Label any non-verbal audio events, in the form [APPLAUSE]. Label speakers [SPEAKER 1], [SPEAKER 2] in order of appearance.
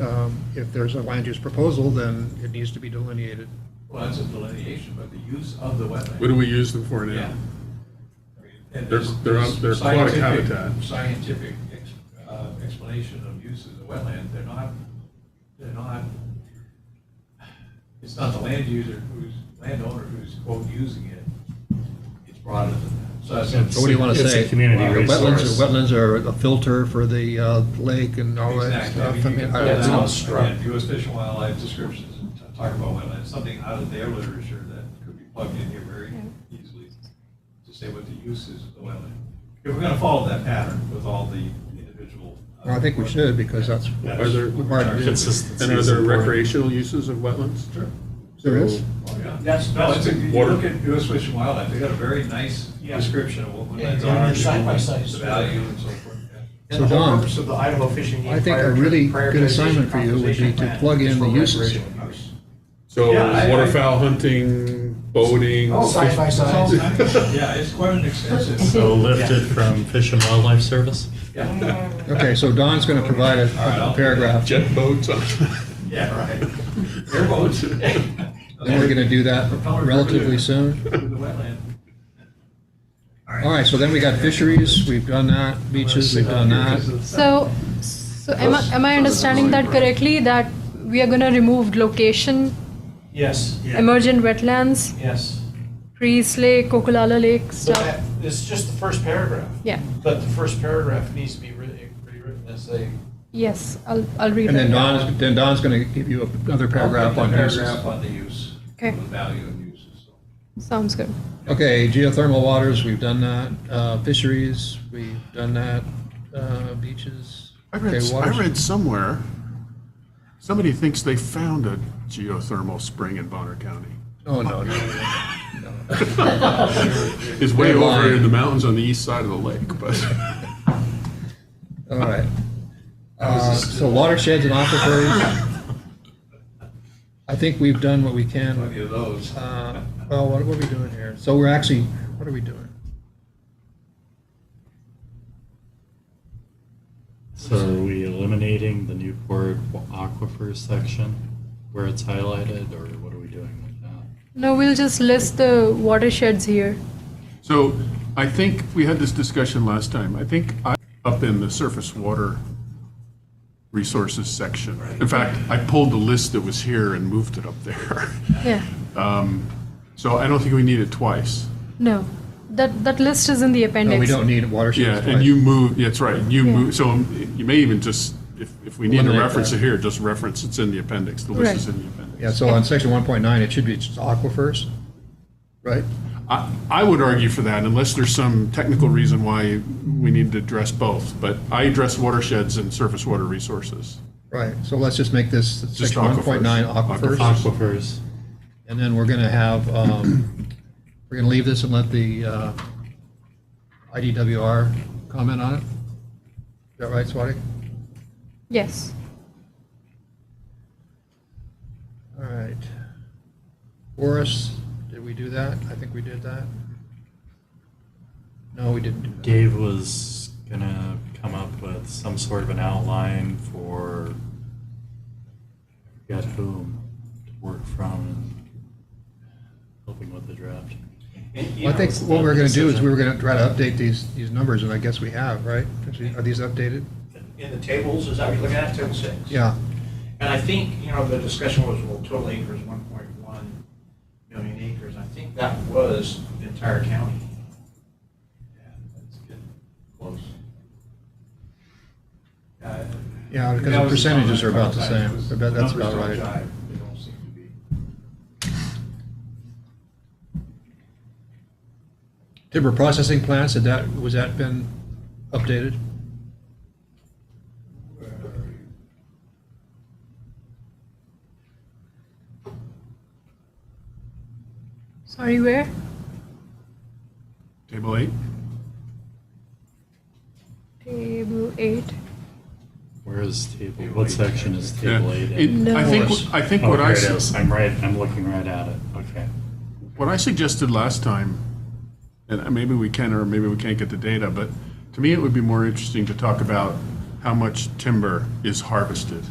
[SPEAKER 1] um, if there's a land use proposal, then it needs to be delineated.
[SPEAKER 2] Well, that's a delineation, but the use of the
[SPEAKER 3] What do
[SPEAKER 2] wetland.
[SPEAKER 3] we use them for
[SPEAKER 2] Yeah.
[SPEAKER 3] now?
[SPEAKER 2] I mean, and
[SPEAKER 3] They're-
[SPEAKER 2] there's-
[SPEAKER 3] they're on- they're
[SPEAKER 2] there's
[SPEAKER 3] aquatic
[SPEAKER 2] scientific-
[SPEAKER 3] habitat.
[SPEAKER 2] Scientific ex- uh, explanation of use of the wetland, they're not, they're not, it's not the land user who's, landowner who's quote using it. It's broader than that. So that's.
[SPEAKER 1] So what do you want to
[SPEAKER 4] It's a
[SPEAKER 1] say?
[SPEAKER 4] community
[SPEAKER 1] Uh,
[SPEAKER 4] resource.
[SPEAKER 1] Wetlands are, wetlands are a filter for the uh, lake and all that
[SPEAKER 2] Exactly. I
[SPEAKER 1] stuff.
[SPEAKER 2] mean,
[SPEAKER 1] I
[SPEAKER 2] you
[SPEAKER 1] mean,
[SPEAKER 2] can
[SPEAKER 1] I
[SPEAKER 2] pull
[SPEAKER 1] don't know.
[SPEAKER 2] down, again, U.S. Fish and Wildlife descriptions and t- talk about wetlands, something out of their literature that could be plugged in here very easily to say what the use is of the wetland. If we're gonna follow that pattern with all the individual. uh,
[SPEAKER 1] Well, I think we should, because that's what
[SPEAKER 2] That's
[SPEAKER 3] Are there-
[SPEAKER 1] we're required to do.
[SPEAKER 4] Consistency
[SPEAKER 3] And are
[SPEAKER 4] is
[SPEAKER 3] there
[SPEAKER 4] important.
[SPEAKER 3] recreational uses of wetlands?
[SPEAKER 2] Sure.
[SPEAKER 1] There is?
[SPEAKER 2] Oh, yeah.
[SPEAKER 5] That's-
[SPEAKER 2] No, it's, a- you
[SPEAKER 3] Water.
[SPEAKER 2] look at U.S. Fish and Wildlife, they got a very nice
[SPEAKER 5] Yeah.
[SPEAKER 2] description of what
[SPEAKER 5] Yeah,
[SPEAKER 2] wetlands
[SPEAKER 5] and
[SPEAKER 2] are.
[SPEAKER 5] they're side by sides.
[SPEAKER 2] The value and so forth. yeah.
[SPEAKER 5] And the
[SPEAKER 1] So,
[SPEAKER 5] whole
[SPEAKER 1] Don,
[SPEAKER 5] purpose of the Idaho Fish and Game.
[SPEAKER 1] I think a
[SPEAKER 5] Prior-
[SPEAKER 1] really good
[SPEAKER 5] Prioritization
[SPEAKER 1] assignment for you would be
[SPEAKER 5] Conservation
[SPEAKER 1] to
[SPEAKER 5] Plan
[SPEAKER 1] plug in
[SPEAKER 5] is for
[SPEAKER 1] the uses.
[SPEAKER 5] recreational use.
[SPEAKER 3] So
[SPEAKER 2] Yeah, I-
[SPEAKER 3] waterfowl hunting, boating.
[SPEAKER 5] Oh, side by
[SPEAKER 3] fish- [LAUGHS]
[SPEAKER 5] side.
[SPEAKER 2] Yeah, it's quite an extensive.
[SPEAKER 4] So lifted from Fish and Wildlife Service?
[SPEAKER 2] Yeah.
[SPEAKER 1] Okay, so Don's going to provide a
[SPEAKER 2] All right, I'll-
[SPEAKER 1] a paragraph.
[SPEAKER 3] Jet boats. on- [LAUGHS]
[SPEAKER 2] Yeah, right. [LAUGHS] Airboats. And
[SPEAKER 1] And we're going to do that relatively soon.
[SPEAKER 2] Through the wetland.
[SPEAKER 1] All right, so then we got fisheries, we've done that, beaches, we've done that.
[SPEAKER 6] So, so am I, am I understanding that correctly, that we are gonna remove location,
[SPEAKER 5] Yes,
[SPEAKER 6] emergent wetlands,
[SPEAKER 5] yes.
[SPEAKER 6] Crease Lake, Kokolala Lake
[SPEAKER 5] But
[SPEAKER 6] stuff?
[SPEAKER 5] that, it's just the first paragraph.
[SPEAKER 6] Yeah,
[SPEAKER 5] But the first paragraph needs to be written- rewritten as a,
[SPEAKER 6] yes, I'll, I'll read
[SPEAKER 1] And then
[SPEAKER 6] it.
[SPEAKER 1] Don's, then Don's going to give you another paragraph on uses.
[SPEAKER 2] Paragraph on the use.
[SPEAKER 6] Okay.
[SPEAKER 2] The value and uses.
[SPEAKER 6] Sounds good.
[SPEAKER 1] Okay, geothermal waters, we've done that. Uh, Fisheries, we've done that. Uh, Beaches.
[SPEAKER 3] I read,
[SPEAKER 1] Okay,
[SPEAKER 3] I
[SPEAKER 1] waters.
[SPEAKER 3] read somewhere, somebody thinks they found a geothermal spring in Bonner County.
[SPEAKER 1] Oh, no, no.
[SPEAKER 3] It's way
[SPEAKER 1] They're
[SPEAKER 3] over
[SPEAKER 1] lying.
[SPEAKER 3] in the mountains on the east side of the lake, but [LAUGHS]
[SPEAKER 1] All right. Uh, So watersheds and
[SPEAKER 3] [LAUGHS]
[SPEAKER 1] aquifers. I think we've done what we
[SPEAKER 2] Plenty
[SPEAKER 1] can.
[SPEAKER 2] of those.
[SPEAKER 1] Uh, Well, what what are we doing here? So we're actually, what are we doing?
[SPEAKER 4] So are we eliminating the Newport Aquifer section where it's highlighted, or what are we doing with that?
[SPEAKER 6] No, we'll just list the watersheds here.
[SPEAKER 3] So I think we had this discussion last time. I think I, up in the surface water resources section. In fact, I pulled the list that was here and moved it up there. [LAUGHS]
[SPEAKER 6] Yeah,
[SPEAKER 3] So I don't think we need it twice.
[SPEAKER 6] no, that, that list is in the
[SPEAKER 1] No,
[SPEAKER 6] appendix.
[SPEAKER 1] we don't need watersheds.
[SPEAKER 3] Yeah,
[SPEAKER 1] twice.
[SPEAKER 3] and you move, yeah, that's right, you
[SPEAKER 6] Yeah.
[SPEAKER 3] move, so um, you may even just, if, if we need to
[SPEAKER 1] Eliminate
[SPEAKER 3] reference
[SPEAKER 1] that.
[SPEAKER 3] it here, just reference, it's in the appendix, the list
[SPEAKER 6] Right.
[SPEAKER 3] is in the appendix.
[SPEAKER 1] Yeah, so on section 1.9, it should be just aquifers, right?
[SPEAKER 3] I, I would argue for that unless there's some technical reason why we need to address both, but I address watersheds and surface water resources.
[SPEAKER 1] Right, so let's just make this
[SPEAKER 3] Just
[SPEAKER 1] section 1.9 aquifers.
[SPEAKER 3] aquifers.
[SPEAKER 4] Aquifers,
[SPEAKER 1] And then we're going to have, um, we're going to leave this and let the uh, IDWR comment on it. Is that right, Swati?
[SPEAKER 6] Yes,
[SPEAKER 1] All right. Forests, did we do that? I think we did that. No, we didn't do that.
[SPEAKER 4] Dave was gonna come up with some sort of an outline for, I forget whom to work from, and helping with the draft.
[SPEAKER 2] And, you
[SPEAKER 1] Well, I
[SPEAKER 2] know,
[SPEAKER 1] think
[SPEAKER 4] it's
[SPEAKER 1] what
[SPEAKER 4] not
[SPEAKER 1] we're
[SPEAKER 4] the
[SPEAKER 1] going to do is
[SPEAKER 4] decision.
[SPEAKER 1] we were going to try to update these, these numbers, and I guess we have, right? Are these updated?
[SPEAKER 5] in the tables, is that what you're looking at, table six?
[SPEAKER 1] Yeah.
[SPEAKER 5] And I think, you know, the discussion was, well, total acres, 1.1 million acres. I think that was the entire county.
[SPEAKER 2] Yeah, that's getting Close. Uh,
[SPEAKER 1] Yeah, because
[SPEAKER 2] that
[SPEAKER 1] the
[SPEAKER 2] was comment
[SPEAKER 1] percentages are
[SPEAKER 2] a
[SPEAKER 1] about the
[SPEAKER 2] couple
[SPEAKER 1] same.
[SPEAKER 2] times.
[SPEAKER 1] I bet that's
[SPEAKER 2] Numbers
[SPEAKER 1] about
[SPEAKER 2] don't
[SPEAKER 1] right.
[SPEAKER 2] jive. They don't seem to be.
[SPEAKER 1] Timber processing plants, had that, was that been updated?
[SPEAKER 6] sorry, where?
[SPEAKER 3] Table eight?
[SPEAKER 6] Table eight.
[SPEAKER 4] Where is table, what section is
[SPEAKER 3] Yeah.
[SPEAKER 4] table eight
[SPEAKER 3] It-
[SPEAKER 4] in?
[SPEAKER 6] No.
[SPEAKER 3] I think, I think
[SPEAKER 4] Oh,
[SPEAKER 3] what I,
[SPEAKER 4] here it
[SPEAKER 3] su-
[SPEAKER 4] is, I'm right, I'm looking right at it, okay.
[SPEAKER 3] what I suggested last time, and maybe we can or maybe we can't get the data, but to me, it would be more interesting to talk about how much timber is harvested